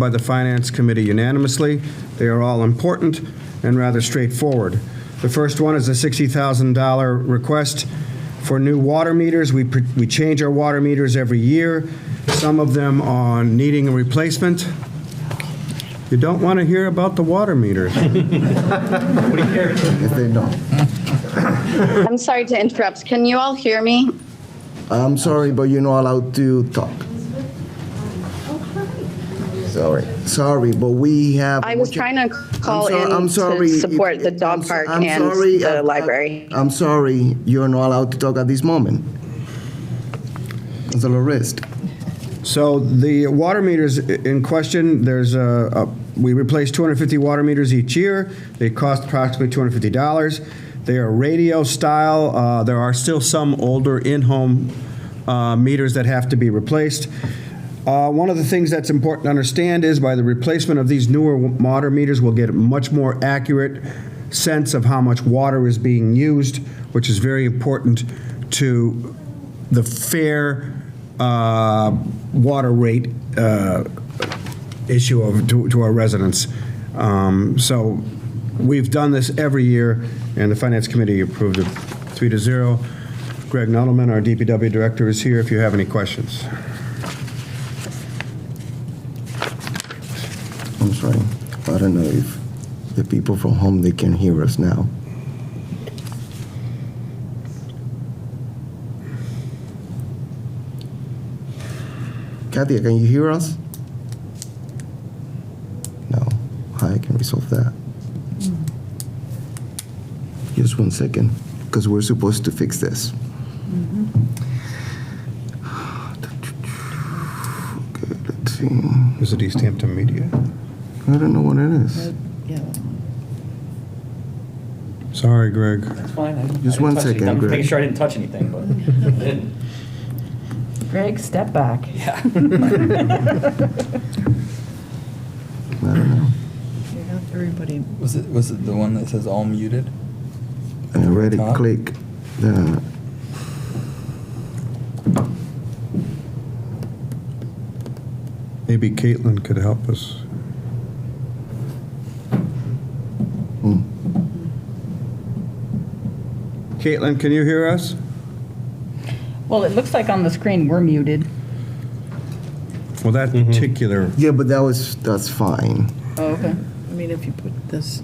by the Finance Committee unanimously. They are all important and rather straightforward. The first one is a $60,000 request for new water meters. We, pr- we change our water meters every year, some of them are needing a replacement. You don't want to hear about the water meters. if they don't. I'm sorry to interrupt. Can you all hear me? I'm sorry, but you're not allowed to talk. Sorry, sorry, but we have. I was trying to call I'm so- in I'm to sorry. support the dog I'm so- park I'm and sorry, I- I- the library. I'm sorry, you're not allowed to talk at this moment. Councilor Rist. So the water meters i- in question, there's a, a- we replace 250 water meters each year. They cost approximately $250. They are radio style. Uh, There are still some older in-home uh, meters that have to be replaced. Uh, One of the things that's important to understand is by the replacement of these newer w- water meters, we'll get a much more accurate sense of how much water is being used, which is very important to the fair uh, water rate uh, issue of, to, to our residents. Um, So we've done this every year, and the Finance Committee approved it three to zero. Greg Nudelman, our DPW Director, is here if you have any questions. I'm sorry. I don't know if the people from home, they can hear us now. Katia, can you hear us? No. I can resolve that. Just one second, because we're supposed to fix this. Okay, let's see. Is it East Hampton Media? I don't know what it is. Sorry, Greg. It's fine. I- I Just didn't one touch anything. second, I'm Greg. making sure I didn't touch anything, but I didn't. Greg, step back. I don't know. Everybody. Was it, was it the one that says all muted? I already Top. click the. Maybe Caitlin could help us. Hmm. Caitlin, can you hear us? Well, it looks like on the screen we're muted. Well, that particular, Yeah, but that was, that's fine. Oh, okay. I mean, if you put this,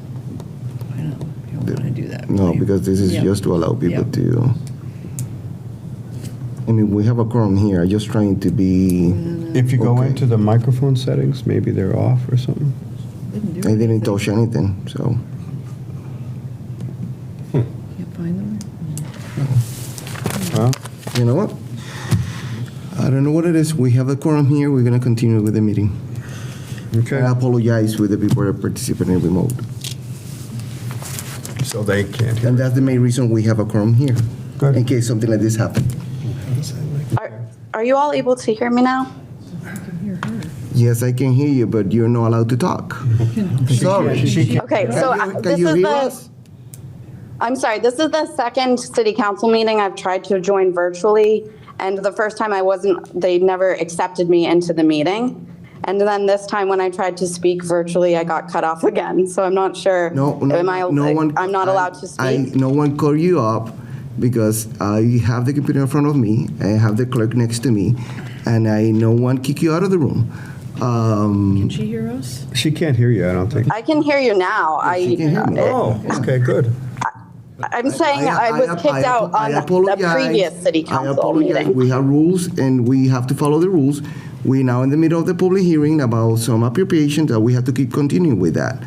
I don't, you don't want to do that. No, really. because this is Yeah. just to allow people Yeah. to. I mean, we have a quorum here, I'm just trying to be, Mm-hmm. if you go Okay. into the microphone settings, maybe they're off or something. Didn't I do it. didn't touch anything, so. Can't find them. Well, You know what? I don't know what it is, we have a quorum here, we're gonna continue with the meeting. okay. I apologize with the people that participate in remote. So they can't And that's the main reason we have a quorum here, Good. in case something like this happened. Are, are you all able to hear me now? Yes, I can hear you, but you're not allowed to talk. Sorry. Okay, so Can uh, you- this can you is hear the, us? I'm sorry, this is the second city council meeting I've tried to join virtually. And the first time I wasn't, they never accepted me into the meeting. And then this time when I tried to speak virtually, I got cut off again. So I'm not sure. No, no, Am I, no one. I'm not I- allowed to I, speak? no one called you up because I have the computer in front of me, I have the clerk next to me, and I no one kick you out of the room. Um, Can she hear us? She can't hear you, I don't think. I can hear you now. she can hear me. I, Oh, okay, good. I'm saying I was ap- kicked out ap- I on the apologize. previous city I council apologize. meeting. We have rules and we have to follow the rules. We're now in the middle of the public hearing about some appropriations that we have to keep continuing with that.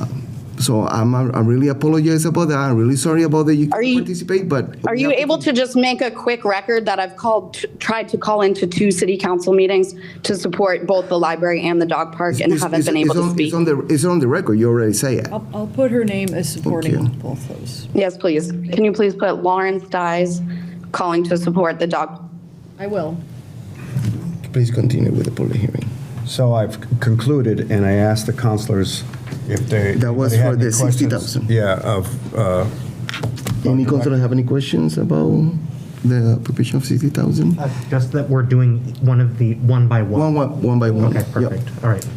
Um, So I'm, I really apologize about that. I'm really sorry about that you Are can't you- participate, but. Are we you have to able to just make a quick record that I've called, tried to call into two city council meetings to support both the library and the dog park and It's- haven't it's- been able it's to on- speak? It's on the, it's on the record, you already say it. I'll, I'll put her name as supporting you. both those. Yes, please. Can you please put Lawrence Dyes calling to support the dog? I will. Please continue with the public hearing. So I've concluded, and I asked the counselors if they. That was they had for the any questions. 60,000. Yeah, of, uh, Any councilor have any questions about the provision of 60,000? Uh, Just that we're doing one of the, one by one. One, one, one by one. Okay, Yep. perfect, all right.